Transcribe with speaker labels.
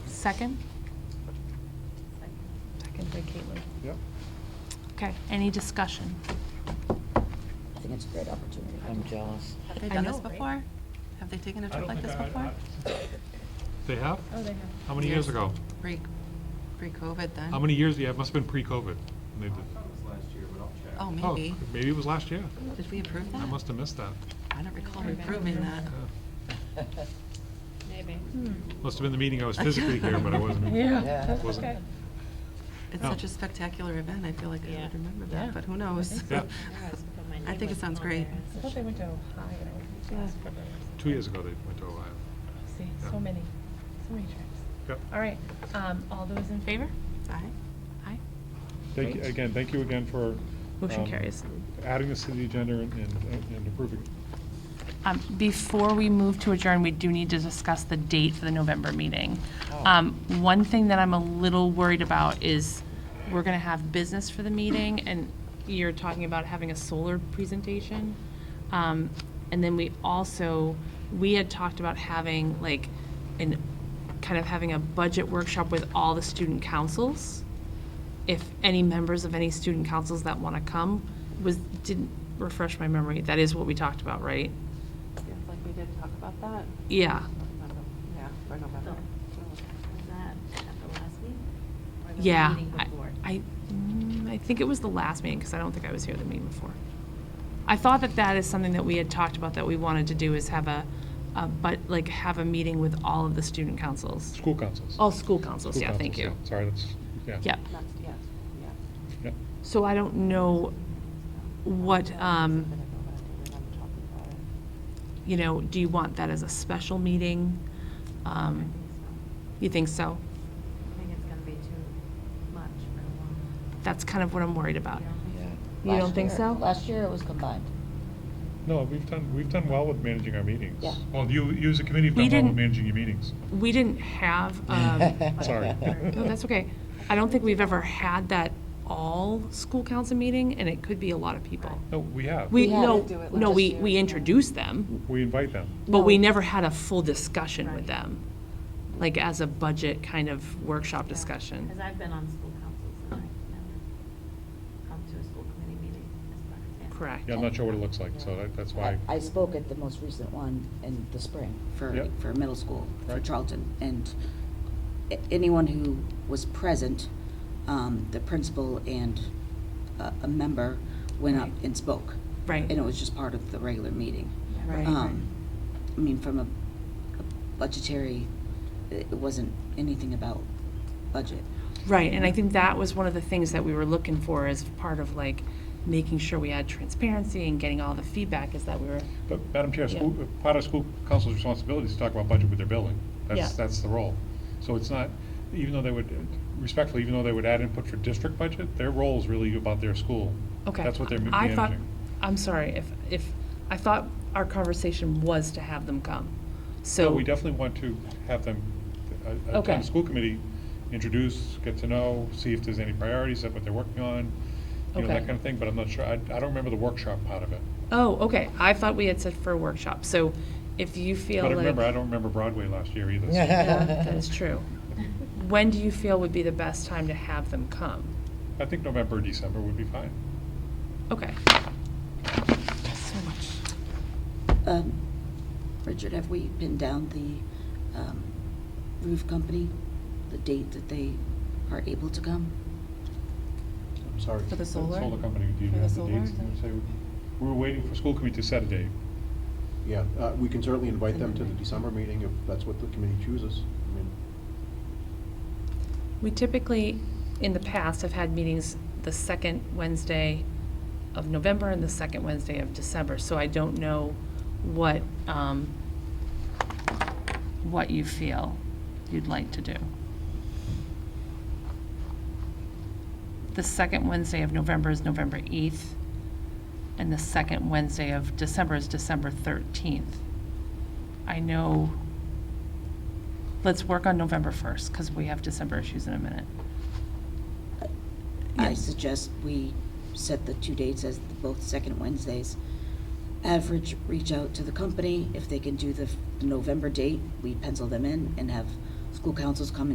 Speaker 1: Second?
Speaker 2: Second by Caitlin.
Speaker 3: Yep.
Speaker 1: Okay, any discussion?
Speaker 2: I think it's a great opportunity.
Speaker 4: I'm jealous.
Speaker 5: Have they
Speaker 1: I
Speaker 5: done this
Speaker 1: know, right?
Speaker 5: before? Have they taken a
Speaker 3: I
Speaker 5: trip
Speaker 3: don't
Speaker 5: like
Speaker 3: think
Speaker 5: this
Speaker 3: I-
Speaker 5: before?
Speaker 3: I-
Speaker 6: They have?
Speaker 2: Oh, they have.
Speaker 6: How many years ago?
Speaker 5: Pre, pre-COVID then?
Speaker 6: How many years, yeah, it must have been pre-COVID. They did-
Speaker 5: Oh,
Speaker 6: Oh,
Speaker 5: maybe.
Speaker 6: Maybe it was last year.
Speaker 5: Did we approve that?
Speaker 6: I must have missed that.
Speaker 5: I don't recall approving that.
Speaker 6: Yeah.
Speaker 7: Maybe.
Speaker 1: Hmm.
Speaker 6: Must have been the meeting I was physically here, but I wasn't.
Speaker 4: Yeah. that's
Speaker 6: Wasn't.
Speaker 7: okay.
Speaker 5: It's
Speaker 6: No.
Speaker 5: such a spectacular event, I feel like I
Speaker 7: Yeah.
Speaker 5: would remember
Speaker 2: Yeah.
Speaker 5: that, but who knows?
Speaker 6: Yeah.
Speaker 5: I think it sounds great.
Speaker 2: I thought they went to Ohio.
Speaker 5: Yeah.
Speaker 6: Two years ago, they went to Ohio.
Speaker 7: See,
Speaker 6: Yeah.
Speaker 7: so many, so many trips.
Speaker 6: Yep.
Speaker 7: All right, um, all those in favor?
Speaker 5: Aye.
Speaker 7: Aye.
Speaker 3: Thank you, again, thank you again for.
Speaker 7: Motion
Speaker 3: um,
Speaker 7: carries.
Speaker 3: Adding this to the agenda and, and and approving it.
Speaker 1: Um, Before we move to adjourn, we do need to discuss the date for the November meeting. Um, One thing that I'm a little worried about is we're going to have business for the meeting, and you're talking about having a solar presentation. Um, And then we also, we had talked about having like, an, kind of having a budget workshop with all the student councils. if any members of any student councils that want to come was, didn't refresh my memory, that is what we talked about, right?
Speaker 5: Feels like we did talk about that.
Speaker 1: Yeah,
Speaker 5: Yeah, for November.
Speaker 8: Was that at the last meeting? Or the
Speaker 1: yeah.
Speaker 8: meeting
Speaker 1: I-
Speaker 8: before?
Speaker 1: I, mm, I think it was the last meeting, because I don't think I was here the meeting before. I thought that that is something that we had talked about that we wanted to do is have a, a, but, like, have a meeting with all of the student councils.
Speaker 3: School councils.
Speaker 1: All school councils,
Speaker 3: School
Speaker 1: yeah, thank you.
Speaker 3: councils, yeah. Sorry, that's, yeah.
Speaker 1: Yep.
Speaker 5: That's, yes, yeah.
Speaker 3: Yep.
Speaker 1: So I don't know what, um, you know, do you want that as a special meeting?
Speaker 8: I
Speaker 1: Um,
Speaker 8: think so.
Speaker 1: You think so?
Speaker 8: I think it's gonna be too much for a long.
Speaker 1: That's kind of what I'm worried
Speaker 8: you
Speaker 1: about.
Speaker 8: know?
Speaker 1: You don't think so?
Speaker 2: Last year it was combined.
Speaker 3: No, we've done, we've done well with managing our meetings.
Speaker 2: Yeah.
Speaker 3: Well, you, you as a committee have
Speaker 1: We
Speaker 3: done well with
Speaker 1: didn't-
Speaker 3: managing your meetings.
Speaker 1: We didn't have, um,
Speaker 3: Sorry.
Speaker 1: no, that's okay. I don't think we've ever had that all school council meeting, and it could be a lot of people.
Speaker 3: No, we have.
Speaker 1: We,
Speaker 2: We had
Speaker 1: no,
Speaker 2: to
Speaker 5: do it
Speaker 1: no,
Speaker 5: last
Speaker 1: we,
Speaker 5: year,
Speaker 1: we
Speaker 5: yeah.
Speaker 1: introduced them,
Speaker 3: We invite them.
Speaker 1: but we
Speaker 2: No.
Speaker 1: never had a full discussion with
Speaker 8: Right.
Speaker 1: them, like as a budget kind of workshop discussion.
Speaker 8: Cause I've been on school councils and I've never come to a school committee meeting as far as that.
Speaker 1: Correct.
Speaker 3: Yeah, I'm not sure what it looks like, so that- that's
Speaker 2: I
Speaker 3: why.
Speaker 2: I spoke at the most recent one in the spring for,
Speaker 3: Yep.
Speaker 2: for middle school, for
Speaker 3: Right.
Speaker 2: Charlton. And a- anyone who was present, um, the principal and a a member went up
Speaker 1: Right.
Speaker 2: and spoke.
Speaker 1: Right.
Speaker 2: And it was just part of the regular meeting.
Speaker 5: Right.
Speaker 2: Um, I mean, from a a budgetary, it it wasn't anything about budget.
Speaker 1: Right, and I think that was one of the things that we were looking for as part of like making sure we had transparency and getting all the feedback is that we were,
Speaker 3: But Madam Chair,
Speaker 1: Yeah.
Speaker 3: school, uh, part of school council's responsibility is to talk about budget with their building. That's,
Speaker 1: Yeah.
Speaker 3: that's the role. So it's not, even though they would, respectfully, even though they would add input for district budget, their role is really about their school.
Speaker 1: okay.
Speaker 3: That's what they're
Speaker 1: I
Speaker 3: managing.
Speaker 1: thought, I'm sorry, if, if, I thought our conversation was to have them come, so.
Speaker 3: So we definitely want to have them, a, a,
Speaker 1: Okay.
Speaker 3: the school committee, introduce, get to know, see if there's any priorities, what they're working on, you know,
Speaker 1: Okay.
Speaker 3: that kind of thing, but I'm not sure, I, I don't remember the workshop part of it.
Speaker 1: Oh, okay, I thought we had said for a workshop, so if you feel
Speaker 3: But I
Speaker 1: like.
Speaker 3: remember, I don't remember Broadway last year either. so-
Speaker 1: Yeah, That is true. When do you feel would be the best time to have them come?
Speaker 3: I think November, December would be fine.
Speaker 1: Okay. So much.
Speaker 2: Um, Richard, have we pinned down the um, roof company, the date that they are able to come?
Speaker 3: I'm sorry.
Speaker 5: For the solar?
Speaker 3: Solar company, do you
Speaker 5: For the
Speaker 3: have the
Speaker 5: solar,
Speaker 3: dates?
Speaker 5: is that-
Speaker 3: Say, We were waiting for school committee to set a date.
Speaker 9: Yeah, uh, we can certainly invite them to the December meeting if that's what the committee chooses. I mean,
Speaker 1: We typically, in the past, have had meetings the second Wednesday of November and the second Wednesday of December, so I don't know what, um, what you feel you'd like to do. The second Wednesday of November is November 8th, and the second Wednesday of December is December 13th. I know let's work on November 1st, because we have December issues in a minute.
Speaker 2: I suggest we set the two dates as both second Wednesdays. Average, reach out to the company. If they can do the f- November date, we pencil them in and have school councils come